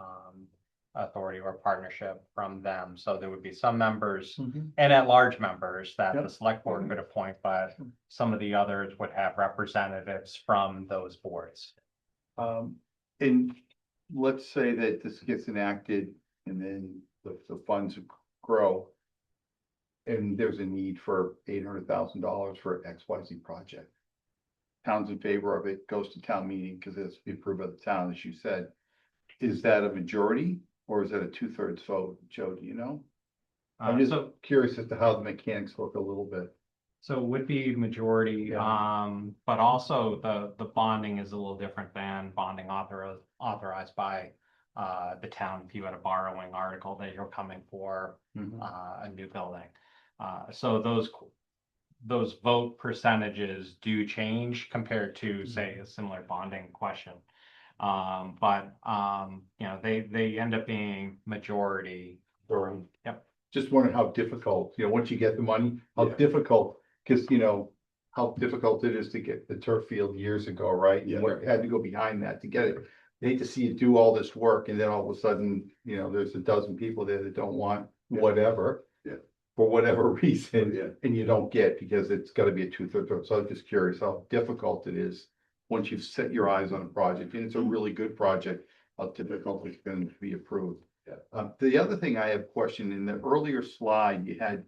um, authority or partnership from them. So there would be some members Mhm. and at-large members that the Yep. Hmm. select board could appoint, but some of the others would have representatives from those boards. Um, and let's say that this gets enacted and then the, the funds grow. And there's a need for eight hundred thousand dollars for X, Y, Z project. Town's in favor of it, goes to town meeting because it's approved by the town, as you said. Is that a majority or is that a two thirds vote? Joe, do you know? I'm Uh, just so, curious as to how the mechanics work a little bit. so it would be majority, um, but also the, the bonding is a little different than bonding author, authorized by uh, the town, if you had a borrowing article that you're coming for, uh, a new building. Uh, so those, qu- those vote percentages do change compared to, say, a similar bonding question. Um, but, um, you know, they, they end up being majority. Or- Yep. Just wondering how difficult, you know, once you get the money, how Yeah. difficult, because you know, how difficult it is to get the turf field years ago, right? You Yeah. went- had to go behind that to get it. They Hate to see you do all this work and then all of a sudden, you know, there's a dozen people there that don't want Yeah. whatever. Yeah. For whatever reason, Yeah, and you don't get because it's gotta be a two thirds vote. So I'm just curious how difficult it is. Once you've set your eyes on a project and it's a really good project, how difficult it's going to be approved. Yeah. Um, the other thing I have questioned in the earlier slide, you had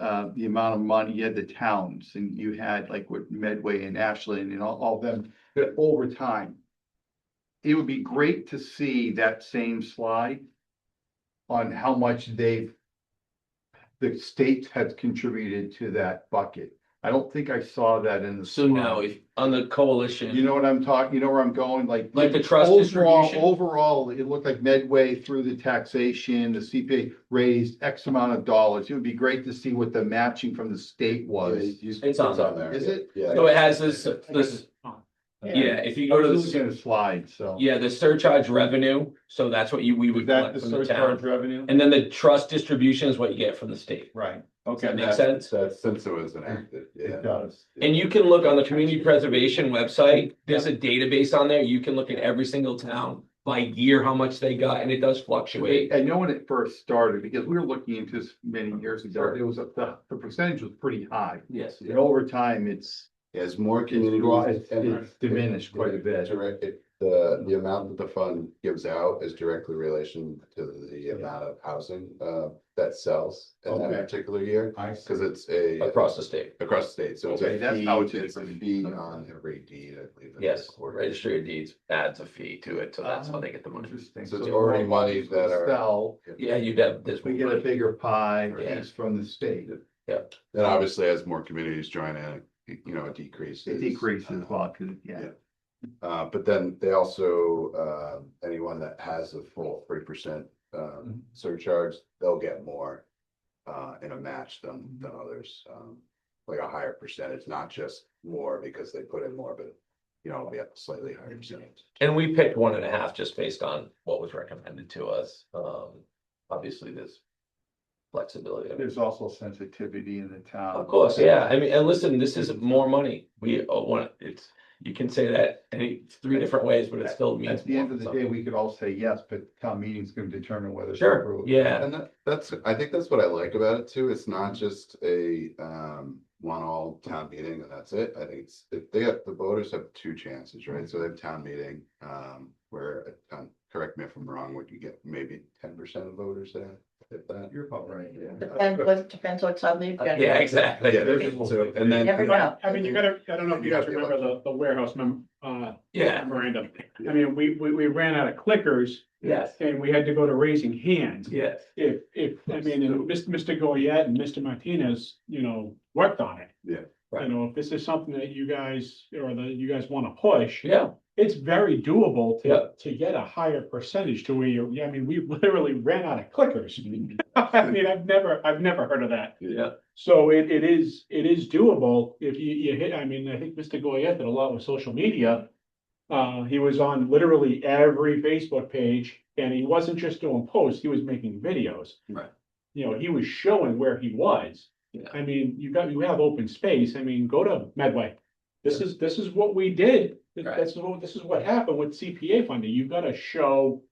uh, the amount of money, you had the towns and you had like with Medway and Ashland and all, all them that over time. It would be great to see that same slide on how much they've the state has contributed to that bucket. I don't think I saw that in the. So now, slide. if, on the coalition. You know what I'm talking, you know where I'm going, like. Like the trust overall, distribution? Overall, it looked like Medway through the taxation, the CPA raised X amount of dollars. It would be great to see what the matching from the state was. It's on there. Is it? Yeah. So it has this, this, yeah, if you I go to was the, looking at a slide, so. yeah, the surcharge revenue, so that's what you, we Is would that collect the from the surcharge town. revenue? And then the trust distribution is what you get from the state. Right, Does that okay, make that, sense? So since it was enacted, yeah. it does. And you can look on the community preservation website, there's a database on there, you can look at every single town by year, how much they got, and it does fluctuate. I know when it first started, because we were looking into this many years ago, it was, a- the, the percentage was pretty high. Yes. And over time, it's, As more it's communities. it's diminished quite a bit. Direct, it- the, the amount that the fund gives out is directly relation to the amount of housing, uh, that sells in that Okay. particular year. I Cause it's a. Across the state, Across the state, so it's Okay, a that's how it's fee, it's a different. fee on every deed, I believe. that's yes, recorded. registry of deeds adds a fee to it, so Oh. that's how they get the money. Interesting. So it's the already more monies that we are- Sell, Yeah, you'd have this. we get a bigger pie, Yeah. piece from the state, And obviously, as more communities join in, you know, it decreases. it decreases a Uh, lot, 'cause, yeah. Yeah. Uh, but then they also, uh, anyone that has a full three percent, Mhm. um, surcharge, they'll get more. Uh, in a match than, than others, um, like a higher percentage, not just more because they put in more, but. You know, it'll be a slightly higher percentage. And we picked one and a half just based on what was recommended to us. Um, obviously there's flexibility. I mean, There's also sensitivity in the town. Of course, yeah. I mean, and listen, this is more money. We uh, want, it's, you can say that any three different ways, but it still means. At the more end of for the day, something. we could all say yes, but town meeting's gonna determine whether. it's Sure, approved. yeah, And that, that's, I think that's what I like about it too. It's not just a, um, one all town meeting and that's it. I think it's, if they have, the voters have two chances, right? So they have town meeting, um, where, um, correct me if I'm wrong, would you get maybe ten percent of voters there? If that, You're about right, Depends, what depends what's on the agenda. yeah, exactly. yeah, there's, so, and then. Never know. I mean, you gotta, I don't know if you You guys gotta be remember the, the warehouse mem- uh, Yeah, memorandum. I mean, we, we, we ran out of clickers yes, and we had to go to raising hands. yes. If, if, I mean, and Mr. Mr. Goyette and Mr. Martinez, you know, worked on it. Yeah. Right. You know, if this is something that you guys, or that you guys wanna push, Yeah, it's very doable Yeah. to, to get a higher percentage to where you, I mean, we literally ran out of clickers. I mean, I've never, I've never heard of that. yeah, So it, it is, it is doable if you, you hit, I mean, I think Mr. Goyette did a lot with social media. Uh, he was on literally every Facebook page and he wasn't just doing posts, he was making videos. Right. You know, he was showing where he was. Yeah. I mean, you got, you have open space. I mean, go to Medway. This is, this is what we did. Th- Right. This is what, this is what happened with CPA funding. You've got to show